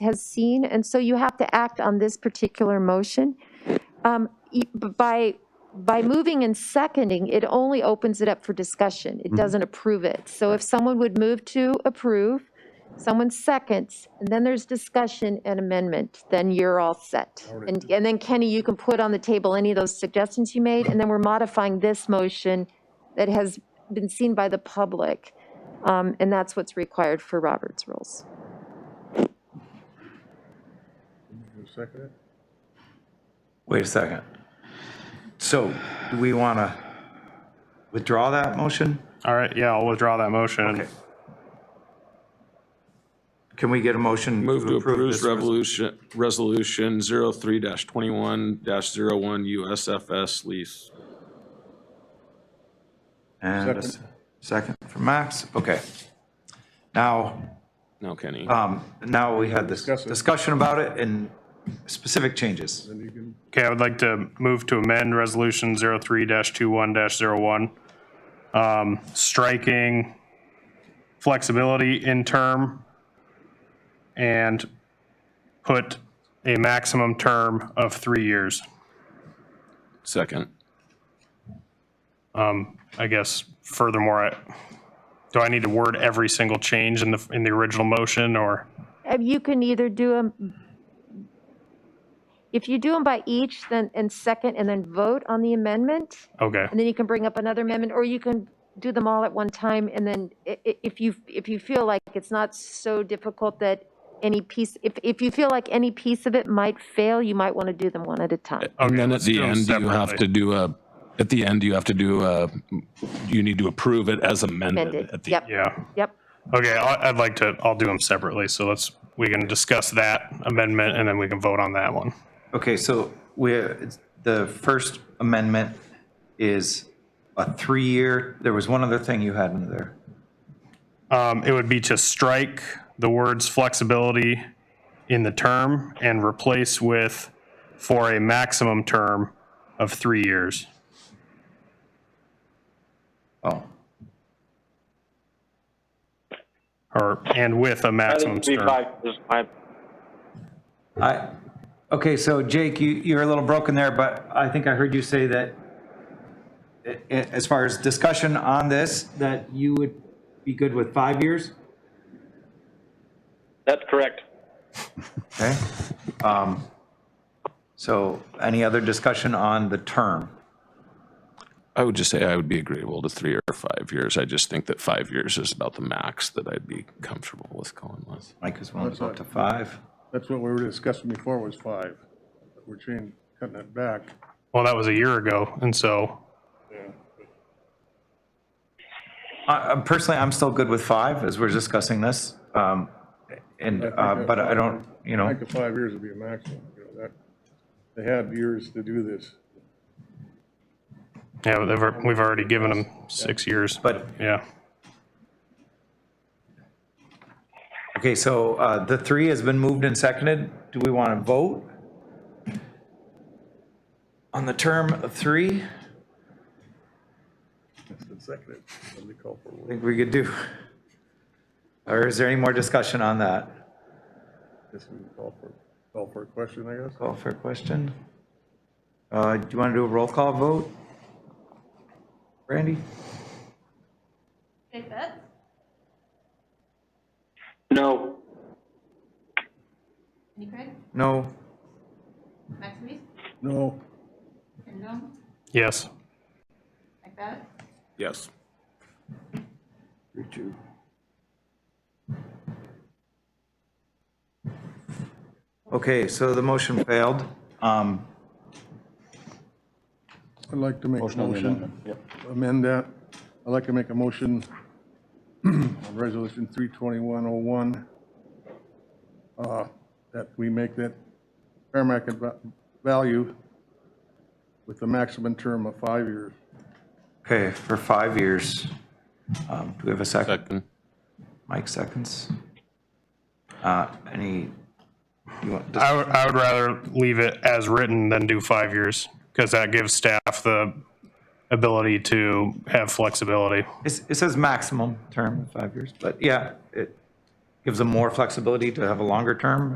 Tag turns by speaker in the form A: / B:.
A: has seen, and so you have to act on this particular motion. Um, y- By, by moving and seconding, it only opens it up for discussion. It doesn't approve it. So if someone would move to approve, someone seconds, and then there's discussion and amendment, then you're all set. And, and then Kenny, you can put on the table any of those suggestions you made, and then we're modifying this motion that has been seen by the public. Um, And that's what's required for Robert's rules.
B: Second it?
C: Wait a second. So do we want to withdraw that motion?
D: All right, yeah, I'll withdraw that motion.
C: Okay. Can we get a motion?
E: Move to
C: this
E: approve
C: resolution?
E: revolution, resolution 03-21-01 USFS lease.
C: And a s- second for Max, okay. Now,
E: No, Kenny.
C: um, now we had this
B: Discuss it.
C: discussion about it and specific changes.
D: Okay, I would like to move to amend Resolution 03-21-01, um, striking flexibility in term and put a maximum term of three years.
E: Second.
D: Um, I guess furthermore, I- do I need to word every single change in the, in the original motion or?
A: Uh, You can either do them, if you do them by each, then, and second, and then vote on the amendment,
D: Okay,
A: and then you can bring up another amendment, or you can do them all at one time, and then i- i- if you, if you feel like it's not so difficult that any piece, if, if you feel like any piece of it might fail, you might want to do them one at a time.
D: oh,
E: And then at the
D: do 'em
E: end, you have
D: separately.
E: to do a, at the end, you have to do a, you need to approve it as amended.
A: Amended,
E: at the-
A: yep,
D: yeah.
A: yep.
D: Okay, I- I'd like to, I'll do them separately, so let's, we can discuss that amendment, and then we can vote on that one.
C: Okay, so we, it's- the first amendment is a three-year, there was one other thing you had in there.
D: Um, It would be to strike the words flexibility in the term and replace with for a maximum term of three years.
C: Oh,
D: Or, and with a
F: I
D: maximum
F: think three
D: term.
F: five is fine.
C: I, okay, so Jake, you, you're a little broken there, but I think I heard you say that i- i- as far as discussion on this, that you would be good with five years?
F: That's correct.
C: Okay. Um, So any other discussion on the term?
E: I would just say I would be agreeable to three or five years. I just think that five years is about the max that I'd be comfortable with going with.
C: Mike is willing to go up to five.
B: That's what we were discussing before was five. We're changing, cutting it back.
D: Well, that was a year ago, and so,
C: I- I'm Personally, I'm still good with five as we're discussing this. Um, And, uh, but I don't, you
B: I
C: know,
B: think the five years would be a maximum, you know, that, they had years to do this.
D: yeah, they've al- we've already given them six years, but,
C: but,
D: yeah.
C: okay, so uh, the three has been moved and seconded. Do we want to vote? On the term of three?
B: It's been seconded. Somebody call for a
C: I
B: vote.
C: think we could do. Or is there any more discussion on that?
B: Guess we can call for, call for a question, I guess.
C: Call for a question. Uh, Do you want to do a roll call vote? Randy?
G: Jake Betts,
F: No,
G: Kenny Craig,
C: No?
G: Max Reese,
B: No,
G: Ken Dom,
D: Yes,
G: Mike Babbitt,
E: Yes.
C: Okay, so the motion failed. Um,
B: I'd like to make a motion. Amend that. I'd like to make a motion on Resolution 32101, uh, that we make that fair market va- value with the maximum term of five years.
C: Okay, for five years. Um, Do we have a second?
E: Second.
C: Mike seconds. Uh, Any, you want,
D: I would, I would rather leave it as written than do five years, because that gives staff the ability to have flexibility.
C: it's- it says maximum term of five years, but yeah, it gives them more flexibility to have a longer term